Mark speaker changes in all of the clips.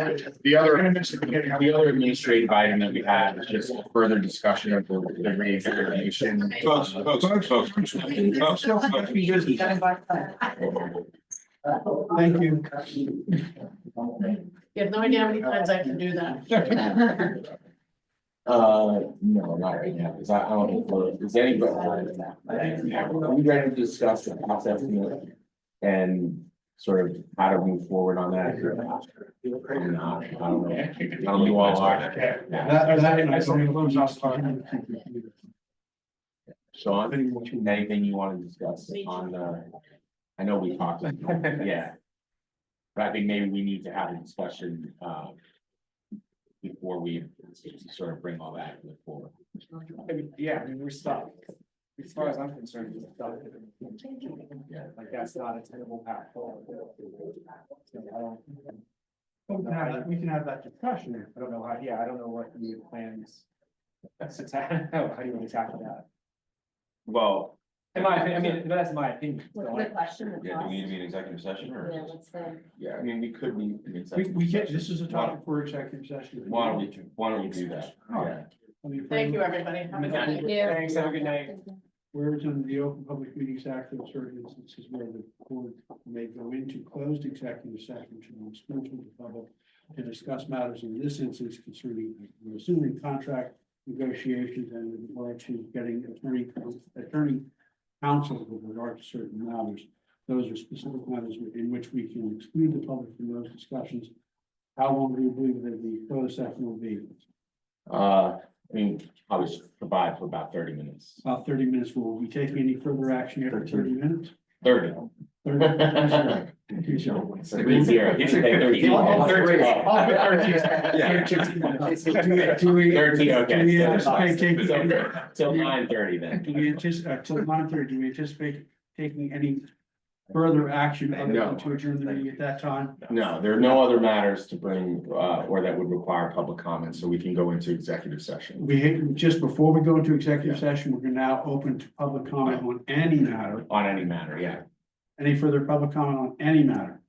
Speaker 1: The other, the other administrative item that we had is just further discussion of the the reexamination.
Speaker 2: Folks, folks, folks, folks, folks, folks, be busy.
Speaker 3: Thank you.
Speaker 4: You have no idea how many times I can do that.
Speaker 1: Uh, no, not right now, because I I don't, know, is anybody? We ready to discuss the concept you know, and sort of how to move forward on that? or not? I'm not, I don't know. I don't know who all are. Yeah. Sean, anything you want to discuss on the, I know we talked, yeah. But I think maybe we need to have a discussion, uh. Before we sort of bring all that forward.
Speaker 5: I mean, Yeah, I mean, we're stuck. As far as I'm concerned, we're stuck.
Speaker 1: Yeah.
Speaker 5: Like, that's not a tenable path forward. So I don't-
Speaker 3: We can have-
Speaker 5: We can have that discussion. I don't know how, yeah, I don't know what the plans. That's a, how do you want to tackle that?
Speaker 2: Well,
Speaker 5: In my, opinion- I mean, that's my opinion. so
Speaker 4: What's the
Speaker 5: I-
Speaker 4: question? the
Speaker 2: yeah, do
Speaker 4: cost?
Speaker 2: we need to be in executive session
Speaker 4: Yeah,
Speaker 2: or?
Speaker 4: what's the,
Speaker 2: Yeah, I mean, we could be. in
Speaker 3: We,
Speaker 2: executive
Speaker 3: we can't,
Speaker 2: session.
Speaker 3: this is a topic for executive session.
Speaker 2: Why don't we, why don't we do that? Yeah.
Speaker 3: Let me frame
Speaker 4: thank you,
Speaker 3: it.
Speaker 4: everybody. Have a good night.
Speaker 5: Thank you. Thanks, have a good night.
Speaker 3: Whereas in the Open Public Meetings Act, in certain instances where the board may go into closed executive session to the exclusion of the public to discuss matters in this instance concerning, we're assuming contract negotiations and in regard to getting attorney, attorney counsel with regard to certain matters. Those are specific matters in which we can exclude the public from those discussions. How long do you believe that the closed session will be?
Speaker 2: Uh, I mean, I was provide for about thirty minutes,
Speaker 3: About thirty minutes. Will we take any further action after thirty minutes?
Speaker 2: thirty.
Speaker 3: 30 minutes?
Speaker 2: Three zero, he said thirty.
Speaker 3: Do we-
Speaker 2: Thirteen, okay.
Speaker 3: Do we anticipate taking,
Speaker 2: So,
Speaker 3: do
Speaker 2: Till nine thirty then.
Speaker 3: we anticipate, uh, till nine thirty, do we anticipate taking any further action other than to adjourn the meeting at that time?
Speaker 1: No, there are no other matters to bring, uh, or that would require public comment, so we can go into executive session.
Speaker 3: We, had- just before we go into executive session, we're now open to public comment on any matter.
Speaker 2: On any matter, yeah.
Speaker 3: Any further public comment on any matter?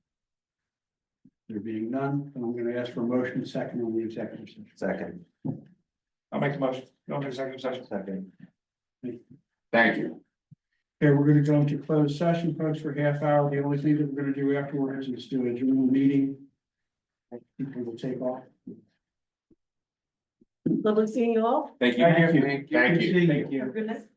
Speaker 3: There being none, then I'm gonna ask for a motion second on the executive session.
Speaker 1: Second.
Speaker 5: I'll make the motion. Go into executive session.
Speaker 1: Second. Thank you.
Speaker 3: Okay, we're gonna go into closed session, folks, for half hour. The only thing that we're gonna do afterwards is do a general meeting. People will take off.
Speaker 4: Lovely seeing you all.
Speaker 2: Thank you.
Speaker 3: Thank you.
Speaker 2: Thank you.
Speaker 3: Good to see you.
Speaker 4: Goodness.